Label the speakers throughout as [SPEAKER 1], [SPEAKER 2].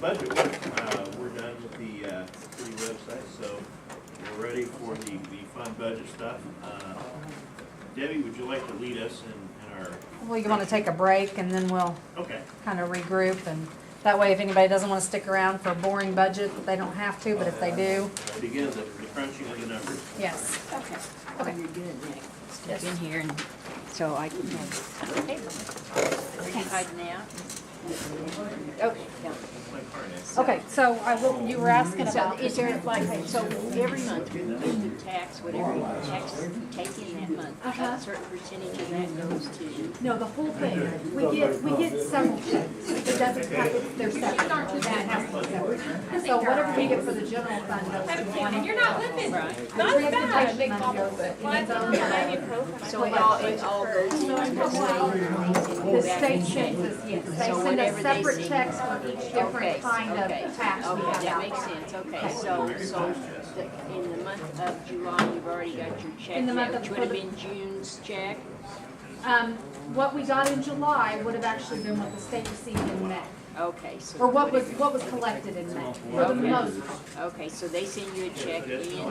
[SPEAKER 1] budget work, uh, we're done with the, uh, city website, so we're ready for the, the fun budget stuff. Uh, Debbie, would you like to lead us in, in our,
[SPEAKER 2] Well, you want to take a break and then we'll
[SPEAKER 1] okay,
[SPEAKER 2] kind of regroup and that way if anybody doesn't want to stick around for a boring budget, they don't have to, but if they do,
[SPEAKER 1] we'll begin the the crunching of the numbers.
[SPEAKER 2] yes.
[SPEAKER 3] Okay.
[SPEAKER 2] Okay.
[SPEAKER 3] You're good, Nick. Step in here and, so I can have. Are you hiding out? Okay.
[SPEAKER 1] It's like harness.
[SPEAKER 2] Okay, so I will, you were asking
[SPEAKER 3] So
[SPEAKER 2] about,
[SPEAKER 3] is there like, so every month we put the tax, whatever tax we take in that month,
[SPEAKER 2] Uh-huh.
[SPEAKER 3] a certain percentage of that goes to.
[SPEAKER 2] no, the whole thing, we get, we get several checks. It doesn't, have- it's- they're separate. That has to be separate. So whatever we get for the general fund goes to one.
[SPEAKER 4] And you're not living,
[SPEAKER 3] Right.
[SPEAKER 4] not bad.
[SPEAKER 2] Transportation money goes to
[SPEAKER 4] What?
[SPEAKER 3] So it all, it all goes into
[SPEAKER 2] The
[SPEAKER 3] the
[SPEAKER 2] state
[SPEAKER 3] state.
[SPEAKER 2] sends us, yes,
[SPEAKER 3] So
[SPEAKER 2] they send us
[SPEAKER 3] whatever they
[SPEAKER 2] separate
[SPEAKER 3] send.
[SPEAKER 2] checks for each different
[SPEAKER 3] Okay,
[SPEAKER 2] kind of
[SPEAKER 3] okay,
[SPEAKER 2] tax we
[SPEAKER 3] Okay,
[SPEAKER 2] have
[SPEAKER 3] that
[SPEAKER 2] out.
[SPEAKER 3] makes sense, okay, so, so the- in the month of July, you've already got your check,
[SPEAKER 2] In the month
[SPEAKER 3] there,
[SPEAKER 2] of-
[SPEAKER 3] which would have been June's check.
[SPEAKER 2] Um, what we got in July would have actually been what the state received in May,
[SPEAKER 3] Okay, so.
[SPEAKER 2] or what was, what was collected in May, for the most part.
[SPEAKER 3] Okay, so they send you a check in July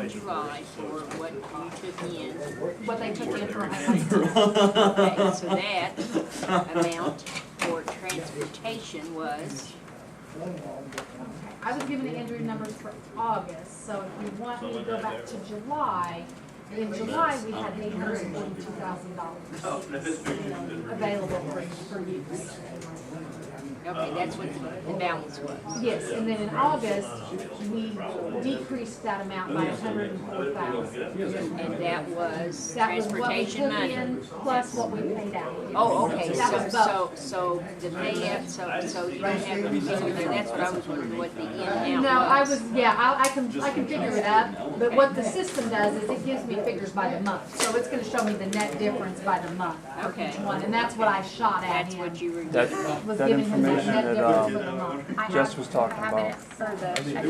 [SPEAKER 3] for what you took in.
[SPEAKER 2] what they took in for us.
[SPEAKER 3] Okay, so that amount for transportation was,
[SPEAKER 2] I was giving Andrew numbers for August, so if you want me to go back to July, in July, we had eight hundred and forty-two thousand
[SPEAKER 1] Oh,
[SPEAKER 2] dollars
[SPEAKER 1] no, this picture's been-
[SPEAKER 2] available for, for use.
[SPEAKER 3] okay, that's what the- the balance was.
[SPEAKER 2] Yes, and then in August, we decreased that amount by a hundred and four thousand.
[SPEAKER 3] And that was
[SPEAKER 2] That was what we
[SPEAKER 3] transportation
[SPEAKER 2] took
[SPEAKER 3] money.
[SPEAKER 2] in plus what we paid out.
[SPEAKER 3] Oh, okay,
[SPEAKER 2] That
[SPEAKER 3] so,
[SPEAKER 2] was both.
[SPEAKER 3] so, so the payout, so, so you don't have, to- so that's what I was wondering, what the in out was.
[SPEAKER 2] No, I was, yeah, I, I can, I can figure it up, but what the system does is it gives me figures by the month. So it's gonna show me the net difference by the month for each
[SPEAKER 3] Okay.
[SPEAKER 2] one, and that's what I shot at
[SPEAKER 3] That's
[SPEAKER 2] him.
[SPEAKER 3] what you were.
[SPEAKER 5] That,
[SPEAKER 2] Was
[SPEAKER 5] that
[SPEAKER 2] giving him that
[SPEAKER 5] information
[SPEAKER 2] net
[SPEAKER 5] that,
[SPEAKER 2] difference for
[SPEAKER 5] um,
[SPEAKER 2] the month.
[SPEAKER 5] Jess was talking about,
[SPEAKER 3] But
[SPEAKER 5] yeah,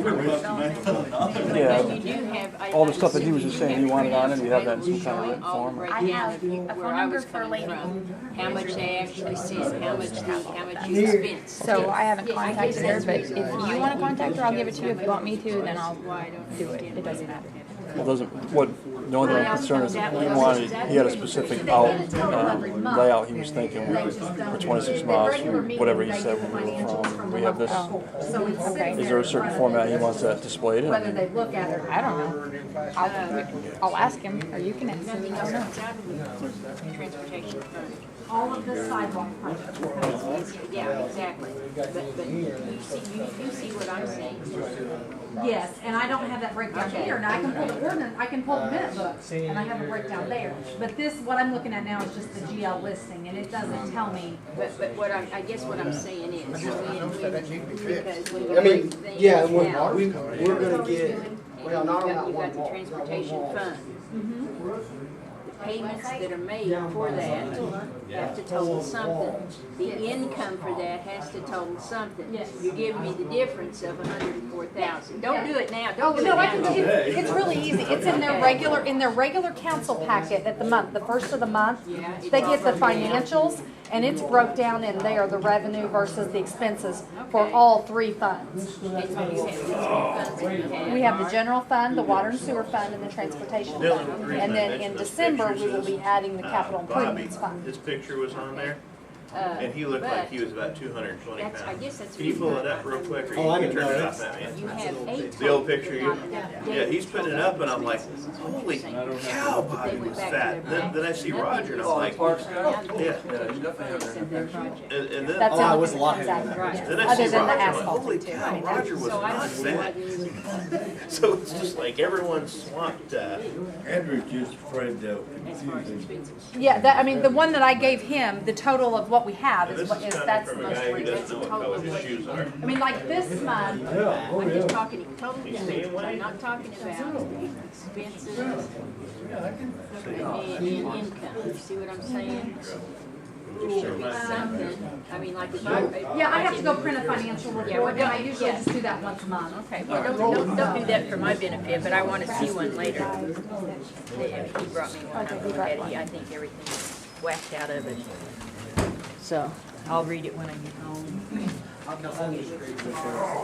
[SPEAKER 3] you do have. I-
[SPEAKER 5] all the
[SPEAKER 3] I'm
[SPEAKER 5] stuff that he was just
[SPEAKER 3] assuming you
[SPEAKER 5] saying,
[SPEAKER 3] have
[SPEAKER 5] he wanted on it, you have that in
[SPEAKER 3] printouts
[SPEAKER 5] some kind of
[SPEAKER 3] showing all the
[SPEAKER 5] form.
[SPEAKER 3] breakdown
[SPEAKER 6] I have
[SPEAKER 3] of you-
[SPEAKER 6] a
[SPEAKER 3] where
[SPEAKER 6] phone
[SPEAKER 3] I
[SPEAKER 6] number
[SPEAKER 3] was
[SPEAKER 6] for
[SPEAKER 3] coming
[SPEAKER 6] Lady.
[SPEAKER 3] from, How much they actually sent, how much they, how much you spent.
[SPEAKER 6] So I haven't contacted her, but if you wanna contact her, I'll give it to you. If you want me to, then I'll do it. It doesn't matter.
[SPEAKER 5] it doesn't, what, the only thing I'm concerned is he wanted, he had a specific out, um, layout, he was thinking we
[SPEAKER 2] They
[SPEAKER 5] were
[SPEAKER 2] just don't-
[SPEAKER 5] for twenty-six
[SPEAKER 2] the
[SPEAKER 5] miles,
[SPEAKER 2] regular meeting,
[SPEAKER 5] whatever he
[SPEAKER 2] they
[SPEAKER 5] said
[SPEAKER 2] get
[SPEAKER 5] we
[SPEAKER 2] the
[SPEAKER 5] were
[SPEAKER 2] financials
[SPEAKER 5] from,
[SPEAKER 2] the
[SPEAKER 5] we have
[SPEAKER 2] month
[SPEAKER 5] this,
[SPEAKER 2] before. So it's
[SPEAKER 6] Okay.
[SPEAKER 2] sitting
[SPEAKER 5] is there a
[SPEAKER 2] in
[SPEAKER 5] certain
[SPEAKER 2] front of
[SPEAKER 5] format he
[SPEAKER 2] them,
[SPEAKER 5] wants that displayed in?
[SPEAKER 2] Whether
[SPEAKER 5] I mean,
[SPEAKER 2] they look at it or
[SPEAKER 6] I
[SPEAKER 2] not.
[SPEAKER 6] don't know.
[SPEAKER 3] Uh,
[SPEAKER 6] I'll, I'll ask him, or you can ask him. I don't know.
[SPEAKER 3] Transportation fund.
[SPEAKER 2] All of the sidewalk projects.
[SPEAKER 3] Yeah, exactly. But, but you see, you, you see what I'm saying.
[SPEAKER 2] Yes, and I don't have that breakdown
[SPEAKER 3] Okay.
[SPEAKER 2] here, and I can pull the ordinance, I can pull the minute book, and I have a breakdown there. But this, what I'm looking at now is just the GL listing, and it doesn't tell me.
[SPEAKER 3] But, but what I, I guess what I'm saying is, when, when, because when you
[SPEAKER 7] I mean,
[SPEAKER 3] break things
[SPEAKER 7] yeah, when
[SPEAKER 3] out,
[SPEAKER 7] we, we're gonna get, well, not on that
[SPEAKER 3] You've got the
[SPEAKER 7] one wall, not one
[SPEAKER 3] transportation
[SPEAKER 7] wall.
[SPEAKER 3] fund.
[SPEAKER 2] Mm-hmm.
[SPEAKER 3] The payments that are made for that have to total something. The income for that has to total something.
[SPEAKER 2] Yes.
[SPEAKER 3] You're giving me the difference of a hundred and four thousand. Don't do it now, don't do it
[SPEAKER 2] No, I
[SPEAKER 3] now.
[SPEAKER 2] can, it's, it's really easy, it's in their regular, in their regular council packet at the month, the first of the month.
[SPEAKER 3] Yeah, it's
[SPEAKER 2] They get the
[SPEAKER 3] all broken down.
[SPEAKER 2] financials, and it's broke down in there, the revenue versus the expenses for
[SPEAKER 3] Okay.
[SPEAKER 2] all three funds.
[SPEAKER 3] It's what you have, it's what funds that you
[SPEAKER 2] We have the general fund, the water and sewer fund, and the transportation
[SPEAKER 1] Dylan, the
[SPEAKER 2] fund.
[SPEAKER 1] reason
[SPEAKER 2] And
[SPEAKER 1] I
[SPEAKER 2] then
[SPEAKER 1] mentioned
[SPEAKER 2] in
[SPEAKER 1] those
[SPEAKER 2] December, we
[SPEAKER 1] pictures
[SPEAKER 2] will be
[SPEAKER 1] is,
[SPEAKER 2] adding the
[SPEAKER 1] uh,
[SPEAKER 2] capital
[SPEAKER 1] Bobby,
[SPEAKER 2] improvements fund.
[SPEAKER 1] This picture was on there,
[SPEAKER 3] Uh,
[SPEAKER 1] and he looked like he
[SPEAKER 3] but
[SPEAKER 1] was about two hundred and twenty
[SPEAKER 3] That's-
[SPEAKER 1] pounds.
[SPEAKER 3] I guess that's
[SPEAKER 1] Can you pull it
[SPEAKER 3] reason I-
[SPEAKER 1] up real quick, or
[SPEAKER 7] Oh, I
[SPEAKER 1] you can
[SPEAKER 7] didn't
[SPEAKER 1] turn it
[SPEAKER 7] know.
[SPEAKER 1] off at me?
[SPEAKER 3] You have eight.
[SPEAKER 1] The old
[SPEAKER 3] times, but
[SPEAKER 1] picture,
[SPEAKER 3] not
[SPEAKER 1] you-
[SPEAKER 3] enough
[SPEAKER 1] Yeah,
[SPEAKER 3] data
[SPEAKER 1] he's
[SPEAKER 3] to
[SPEAKER 1] putting it
[SPEAKER 3] total
[SPEAKER 1] up, and I'm like,
[SPEAKER 3] expenses is what I'm
[SPEAKER 1] holy
[SPEAKER 3] saying.
[SPEAKER 1] cow, Bobby
[SPEAKER 3] They went
[SPEAKER 1] was
[SPEAKER 3] back to
[SPEAKER 1] fat.
[SPEAKER 3] their
[SPEAKER 1] Then, then I
[SPEAKER 3] back.
[SPEAKER 1] see
[SPEAKER 3] Nothing
[SPEAKER 1] Roger, and
[SPEAKER 3] was
[SPEAKER 1] I'm like, yeah,
[SPEAKER 3] done. Nothing was done in that project.
[SPEAKER 1] and, and then,
[SPEAKER 2] That's the
[SPEAKER 7] Oh, I
[SPEAKER 2] only
[SPEAKER 7] was
[SPEAKER 2] thing that comes
[SPEAKER 7] lying.
[SPEAKER 2] out, of it,
[SPEAKER 3] Right.
[SPEAKER 2] yes.
[SPEAKER 1] then I see
[SPEAKER 2] other than
[SPEAKER 1] Roger,
[SPEAKER 2] the
[SPEAKER 1] I'm like,
[SPEAKER 2] asphalt.
[SPEAKER 1] holy cow, Roger was
[SPEAKER 3] So I
[SPEAKER 1] not
[SPEAKER 3] don't know
[SPEAKER 1] fat.
[SPEAKER 3] what news.
[SPEAKER 1] So it's just like everyone swamped, uh,
[SPEAKER 8] Andrew's just afraid they'll
[SPEAKER 3] as far as
[SPEAKER 8] confuse him.
[SPEAKER 3] expenses.
[SPEAKER 2] Yeah, that, I mean, the one that I gave him, the total of what we have
[SPEAKER 1] and
[SPEAKER 2] is
[SPEAKER 1] this
[SPEAKER 2] what
[SPEAKER 1] is
[SPEAKER 2] is,
[SPEAKER 1] coming
[SPEAKER 2] that's the
[SPEAKER 1] from a
[SPEAKER 2] most
[SPEAKER 1] guy who
[SPEAKER 2] ridiculous.
[SPEAKER 3] ridiculous
[SPEAKER 1] doesn't know what
[SPEAKER 3] total
[SPEAKER 1] color his
[SPEAKER 3] what you
[SPEAKER 1] shoes are.
[SPEAKER 2] I mean, like this month,
[SPEAKER 8] Yeah, oh,
[SPEAKER 3] I'm just
[SPEAKER 8] yeah.
[SPEAKER 3] talking in total expenses, I'm not talking about expenses and, and income, you see what I'm saying? Should be something, I mean, like if I.
[SPEAKER 2] yeah, I have to go print a financial report, and I usually
[SPEAKER 3] yeah.
[SPEAKER 2] just do that once a month.
[SPEAKER 3] Okay, well, don't, don't, don't do that for my benefit, but I wanna see one later. They- He brought me one, I looked at it, I think everything's whacked out of it. So, I'll read it when I get home.